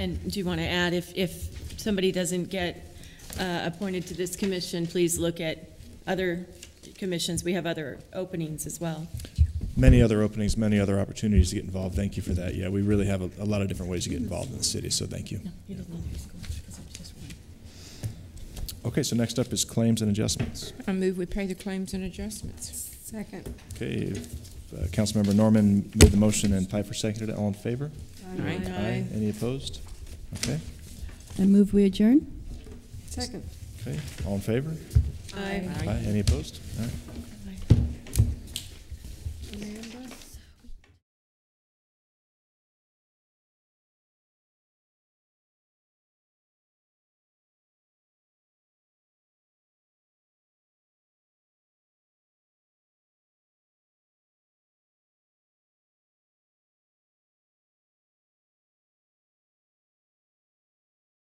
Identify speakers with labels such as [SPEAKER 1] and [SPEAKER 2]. [SPEAKER 1] And do you want to add, if, if somebody doesn't get uh, appointed to this commission, please look at other commissions. We have other openings as well.
[SPEAKER 2] Many other openings, many other opportunities to get involved. Thank you for that. Yeah, we really have a, a lot of different ways to get involved in the city, so thank you. Okay, so next up is claims and adjustments.
[SPEAKER 3] I move we pay the claims and adjustments.
[SPEAKER 4] Second.
[SPEAKER 2] Okay, if, uh, Councilmember Norman made the motion and Piper seconded it. All in favor?
[SPEAKER 3] Aye.
[SPEAKER 2] Any opposed? Okay,
[SPEAKER 5] I move we adjourn.
[SPEAKER 4] Second.
[SPEAKER 2] okay. All in favor?
[SPEAKER 1] Aye.
[SPEAKER 2] Any opposed? All right.